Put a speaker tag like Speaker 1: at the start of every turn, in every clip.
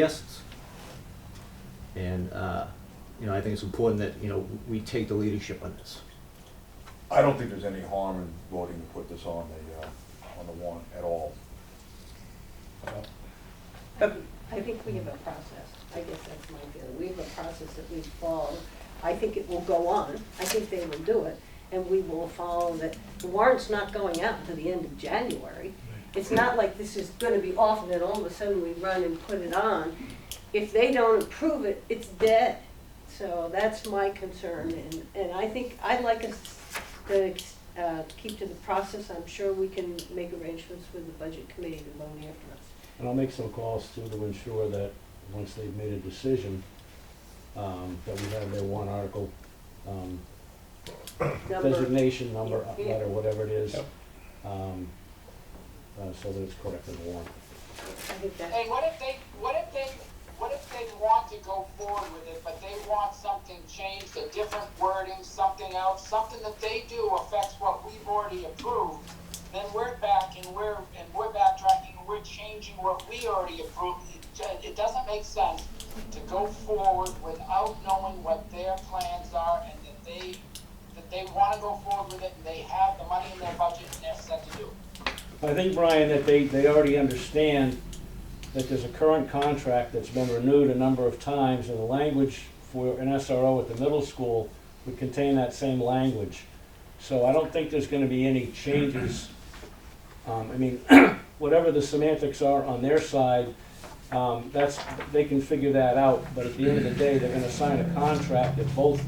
Speaker 1: enthusiasts. And, uh, you know, I think it's important that, you know, we take the leadership on this.
Speaker 2: I don't think there's any harm in voting to put this on the, uh, on the warrant at all.
Speaker 3: I think we have a process. I guess that's my feeling. We have a process that we follow. I think it will go on. I think they will do it. And we will follow that. The warrant's not going out to the end of January. It's not like this is gonna be off and then all of a sudden we run and put it on. If they don't approve it, it's dead. So that's my concern. And, and I think, I'd like us to, uh, keep to the process. I'm sure we can make arrangements with the budget committee to loan after us.
Speaker 4: And I'll make some calls too to ensure that, once they've made a decision, um, that we have their one article, um,
Speaker 3: Number-
Speaker 4: designation number, uh,
Speaker 3: Yeah.
Speaker 4: letter, whatever it is,
Speaker 5: Yep.
Speaker 4: um, uh, so that it's correct in the warrant.
Speaker 3: I think that's.
Speaker 6: Hey, what if they, what if they, what if they want to go forward with it, but they want something changed, a different wording, something else, something that they do affects what we've already approved, then we're back and we're, and we're backtracking, and we're changing what we already approved. It ju- It doesn't make sense to go forward without knowing what their plans are and that they, that they wanna go forward with it and they have the money in their budget and they're set to do. it.
Speaker 4: I think, Brian, that they, they already understand that there's a current contract that's been renewed a number of times, and the language for an SRO at the middle school would contain that same language. So I don't think there's gonna be any changes. Um, I mean, whatever the semantics are on their side, um, that's, they can figure that out, but at the end of the day, they're gonna sign a contract that both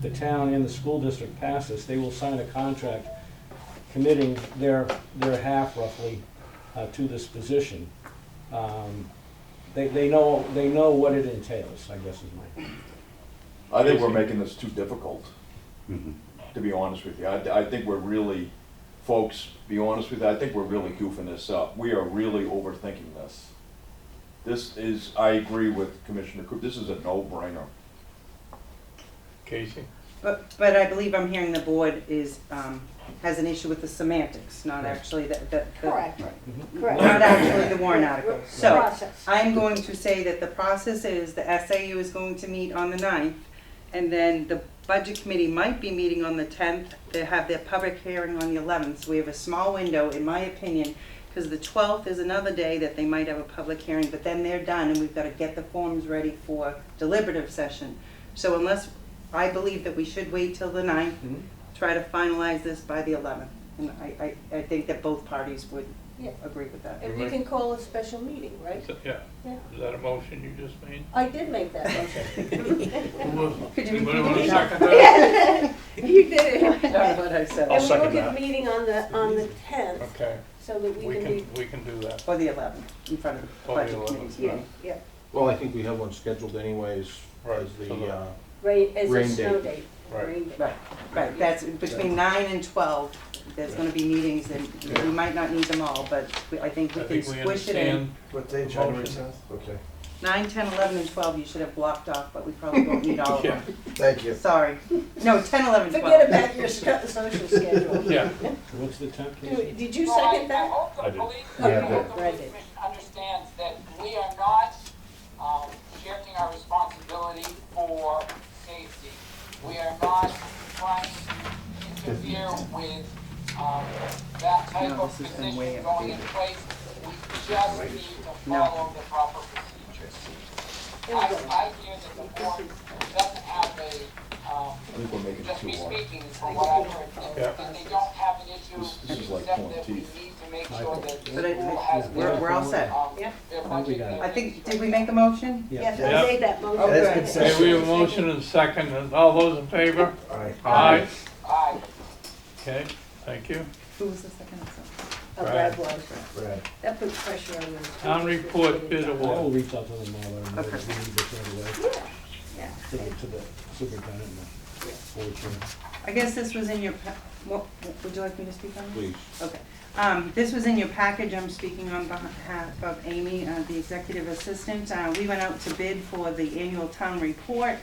Speaker 4: the town and the school district passes. They will sign a contract committing their, their half roughly uh, to this position. Um, They, they know, they know what it entails, I guess is my,
Speaker 2: I think we're making this too difficult, to be honest with you. I, I think we're really, folks, be honest with you, I think we're really goofing this up. We are really overthinking this. This is, I agree with Commissioner Coop, this is a no-brainer.
Speaker 5: Casey?
Speaker 7: But, but I believe I'm hearing the board is, um, has an issue with the semantics, not actually the, the. the-
Speaker 3: Correct, correct.
Speaker 7: Not actually the warrant article. So, uh,
Speaker 3: Process.
Speaker 7: I'm going to say that the process is, the SAU is going to meet on the ninth, and then the budget committee might be meeting on the tenth, they have their public hearing on the eleventh, so we have a small window, in my opinion, because the twelfth is another day that they might have a public hearing, but then they're done, and we've gotta get the forms ready for deliberative session. So unless, I believe that we should wait till the ninth,
Speaker 4: Mhm.
Speaker 7: try to finalize this by the eleventh, and I, I, I think that both parties would
Speaker 3: Yeah.
Speaker 7: agree with that.
Speaker 3: And we can call a special meeting, right?
Speaker 5: Is that- Yeah,
Speaker 3: Yeah.
Speaker 5: is that a motion you just made?
Speaker 3: I did make that motion.
Speaker 7: Could you
Speaker 5: Anybody
Speaker 7: repeat
Speaker 5: wanna
Speaker 7: it?
Speaker 5: second that?
Speaker 3: You did it.
Speaker 7: Sorry what I said.
Speaker 5: I'll
Speaker 3: And we'll
Speaker 5: second
Speaker 3: get
Speaker 5: that.
Speaker 3: a meeting on the, on the tenth,
Speaker 5: Okay,
Speaker 3: so that we
Speaker 5: we
Speaker 3: can be,
Speaker 5: can, we can do that.
Speaker 7: Or the eleventh, in front of the
Speaker 5: Or the
Speaker 7: budget
Speaker 5: 11th,
Speaker 7: committee's meeting.
Speaker 3: yeah,
Speaker 8: Well, I think we have one scheduled anyways,
Speaker 5: Right,
Speaker 8: as
Speaker 5: so
Speaker 8: the,
Speaker 5: the-
Speaker 8: uh,
Speaker 3: rain, as a
Speaker 8: Rain
Speaker 3: snow
Speaker 8: date.
Speaker 3: date.
Speaker 5: Right.
Speaker 3: Rain date.
Speaker 7: Right, right, that's between nine and twelve, there's gonna be meetings, and we might not need them all, but we- I think
Speaker 5: I
Speaker 7: we can
Speaker 5: think we
Speaker 7: squish it in.
Speaker 5: understand.
Speaker 8: What day,
Speaker 5: January
Speaker 8: Okay.
Speaker 7: Nine, ten, eleven, and twelve, you should have blocked off, but we probably won't need all of
Speaker 5: Yeah,
Speaker 7: them.
Speaker 8: Thank you.
Speaker 7: Sorry, no, ten, eleven, twelve.
Speaker 3: Forget about your sc- social schedule.
Speaker 5: yeah,
Speaker 4: what's the temp, Casey?
Speaker 3: Did you
Speaker 6: So I-
Speaker 3: second
Speaker 6: I
Speaker 3: that?
Speaker 6: hope the
Speaker 5: I did.
Speaker 6: police, I
Speaker 8: Yeah, I did.
Speaker 6: hope the
Speaker 3: I
Speaker 6: police
Speaker 3: did.
Speaker 6: commission understands that we are not, um, shirking our responsibility for safety. We are not trying to interfere with, um, that type
Speaker 7: No,
Speaker 6: of
Speaker 7: this has been way
Speaker 6: position going in
Speaker 7: outdated.
Speaker 6: place. We just need to
Speaker 7: No.
Speaker 6: follow the proper procedures.
Speaker 3: There we
Speaker 6: I,
Speaker 3: go.
Speaker 6: I hear that the board doesn't have a, um,
Speaker 2: I think we're making it
Speaker 6: just
Speaker 2: too
Speaker 6: me
Speaker 2: hard.
Speaker 6: speaking from what I've heard,
Speaker 5: Yeah.
Speaker 6: that that they don't have an issue,
Speaker 2: This- this is like
Speaker 6: except that we
Speaker 2: pulling
Speaker 6: need
Speaker 2: teeth.
Speaker 6: to make sure that the
Speaker 7: But I-
Speaker 6: school has.
Speaker 7: We're, we're all set.
Speaker 6: um,
Speaker 3: Yeah.
Speaker 6: their
Speaker 4: I think we got it.
Speaker 6: budget.
Speaker 7: I think, did we make a motion?
Speaker 3: Yes,
Speaker 5: Yeah.
Speaker 3: I made that motion.
Speaker 7: Okay. That's good
Speaker 5: okay, we have a motion and a second, and all those in favor?
Speaker 8: Aye.
Speaker 5: Aye.
Speaker 6: Aye.
Speaker 5: Okay, thank you.
Speaker 7: Who was the second? I'm sorry.
Speaker 3: Oh, Brad was.
Speaker 8: Brad.
Speaker 3: That puts pressure on them.
Speaker 5: Town report bid
Speaker 4: I
Speaker 5: award,
Speaker 4: will reach out to them all, and we need
Speaker 7: Okay.
Speaker 4: to send it away
Speaker 3: Yeah, yeah.
Speaker 4: to the, to the superintendent and the board chair.
Speaker 7: I guess this was in your, pa- what, would you like me to speak on? this?
Speaker 8: Please.
Speaker 7: Okay, um, this was in your package, I'm speaking on behalf of Amy, uh, the executive assistant. Uh, we went out to bid for the annual town report.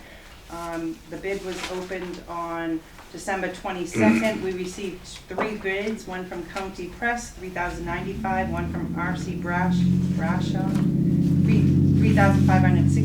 Speaker 7: Um, the bid was opened on December twenty-second. We received three bids, one from County Press, three thousand ninety-five, one from RC Brash, Brashaw, three, three three thousand five hundred sixty